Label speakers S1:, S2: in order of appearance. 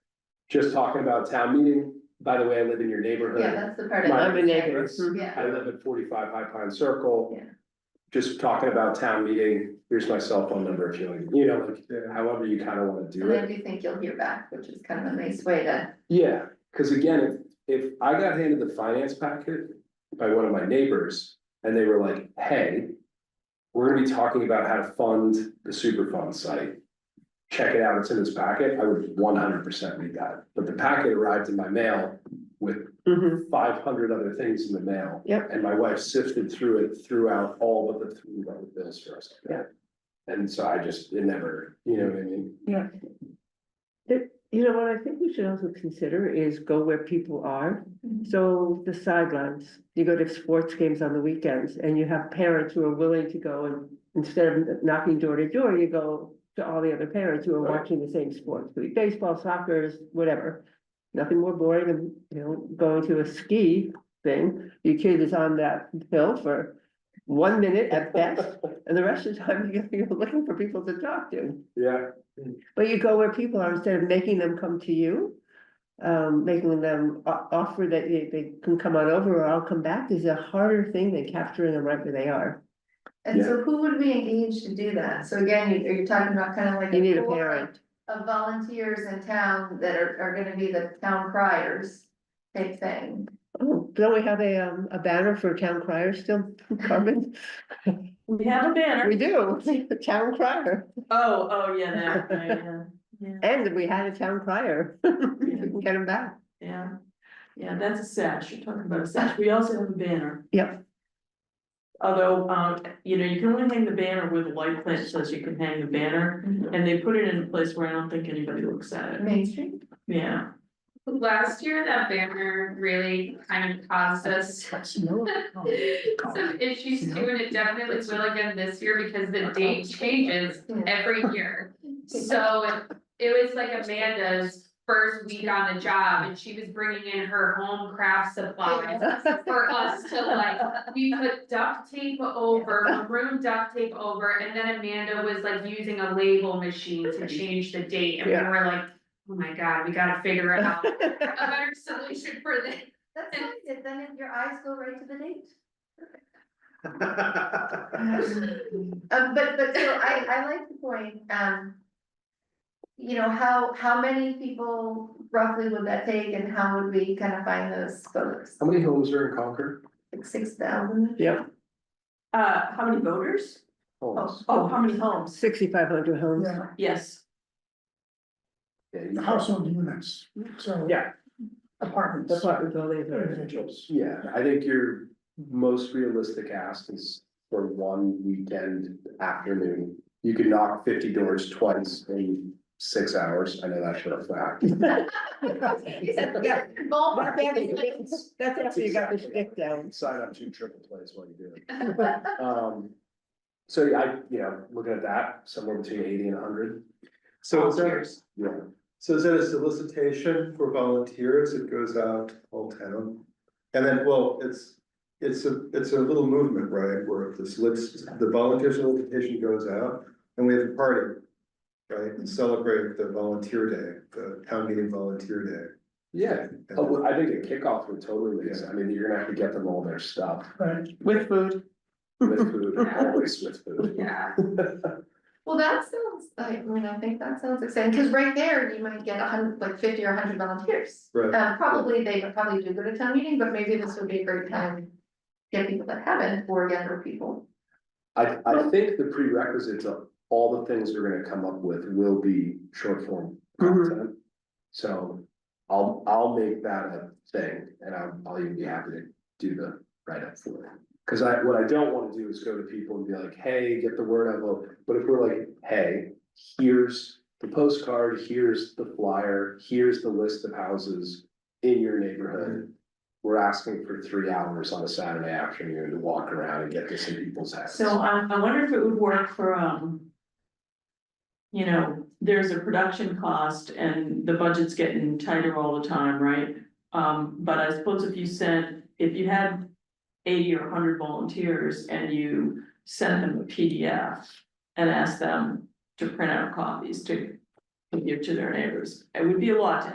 S1: just talking about town meeting, by the way, I live in your
S2: Yeah,
S1: neighborhood.
S2: that's the part. I
S1: My
S2: don't
S1: neighbor.
S2: understand. Yeah,
S1: I live at forty-five High Pine Circle.
S2: Yeah.
S1: Just talking about town meeting, here's my cell phone number, if you, like, you know, like, however you kind of want to do
S2: and I
S1: it.
S2: do think you'll hear back, which is kind of a nice way to,
S1: Yeah, because again, if, if I got handed the finance packet by one of my neighbors, and they were like, hey. We're gonna be talking about how to fund the Superfund site. Check it out, it's in this packet, I would one hundred percent read that, but the packet arrived in my mail with five hundred other things in the mail.
S3: Yep.
S1: And my wife sifted through it throughout all but the three dollar bills for us.
S3: Yeah.
S1: And so I just, it never, you know what I mean?
S3: You know what I think we should also consider is go where people are. So the sidelines, you go to sports games on the weekends and you have parents who are willing to go and instead of knocking door to door, you go to all the other parents who are
S1: Right.
S3: watching the same sports, be it baseball, soccer, whatever. Nothing more boring than, you know, going to a ski thing. Your kid is on that hill for one minute at best, and the rest of the time you're- you're looking for people to talk to.
S1: Yeah,
S3: But you go where people are instead of making them come to you. Um, making them o- offer that they, they can come on over or I'll come back is a harder thing than capturing them right where they are.
S2: and
S1: Yeah.
S2: so who would we engage to do that? So again, you- you're talking about kind of like.
S3: You need a
S2: pool
S3: parent.
S2: Of volunteers in town that are, are gonna be the town criers type thing.
S3: Oh, don't we have a, um, a banner for town crier still, Carmen?
S4: We have a banner.
S3: We do, the town crier.
S4: Oh, oh, yeah, that, yeah, yeah,
S3: And we had a town crier. We can get him back.
S4: yeah. Yeah, that's a sash. You're talking about a sash. We also have a banner.
S3: Yep.
S4: Although, um, you know, you can only hang the banner where the light plant says you can hang the banner,
S1: Mm-hmm.
S4: and they put it in a place where I don't think anybody looks at it.
S2: Main Street,
S4: Yeah.
S5: Last year, that banner really kind of caused us some issues too, and it definitely will again this year because the date changes
S2: yeah.
S5: every year. So it was like Amanda's first week on the job and she was bringing in her home craft supplies for us to like, we put duct tape over, maroon duct tape over, and then Amanda was like using a label machine to change the date, and we
S3: Yeah.
S5: were like, oh my god, we gotta figure out a better solution for this.
S2: That's nice, and then if your eyes go right to the date. Um, but, but so I, I like the point, um. You know, how, how many people roughly would that take and how would we kind of find those folks?
S1: how many homes are in Concord?
S2: Like six thousand?
S3: Yep,
S4: Uh, how many voters?
S1: Homes.
S4: Oh, how many homes?
S3: sixty-five hundred homes.
S4: Yes.
S1: Yeah, you-
S6: household units, so.
S1: Yeah.
S6: Apartments,
S3: Apartment buildings are-
S6: individuals.
S1: Yeah, I think your most realistic ask is for one weekend afternoon. You could knock fifty doors twice in six hours, I know that for a fact.
S2: He said,
S3: Yeah.
S2: ballpark.
S3: That's after you got the
S1: Exactly.
S3: stick down.
S1: Sign up two triple plays while you do it. Um, so yeah, I, you know, looking at that, somewhere between eighty and hundred,
S7: So is that,
S4: Volunteers.
S1: yeah.
S7: so is that a solicitation for volunteers? It goes out to all town? And then, well, it's, it's a, it's a little movement, right, where the solic the volunteer solicitation goes out and we have a party. Right, and celebrate the volunteer day, the town meeting volunteer
S1: Yeah,
S7: day.
S1: Oh, well, I think a kickoff would totally make sense. I mean, you're gonna have to get them all their stuff
S6: Right.
S3: With food.
S1: with food, always with food.
S5: Yeah.
S2: Well, that sounds, like I mean, I think that sounds exciting, cause right there, you might get a hundred, like fifty or a hundred volunteers.
S7: Right.
S2: Um, probably, they would probably do go to town meeting, but maybe this would be a great time. to Get people that haven't, or younger people.
S1: I, I think the prerequisites of all the things we're gonna come up with will be short form
S3: Mhm.
S1: content. So I'll, I'll make that a thing and I'll, I'll even be happy to do the write-up for it. Cause I, what I don't wanna do is go to people and be like, hey, get the word out, Well, but if we're like, hey, here's the postcard, here's the flyer, here's the list of houses in your neighborhood. We're asking for three hours on a Saturday afternoon to walk around and get this in people's houses.
S4: So I, I wonder if it would work for, um. You know, there's a production cost and the budget's getting tighter all the time, right? Um, but I suppose if you sent, if you had eighty or hundred volunteers and you sent them a PDF. And asked them to print out copies to give to their neighbors, it would be a lot to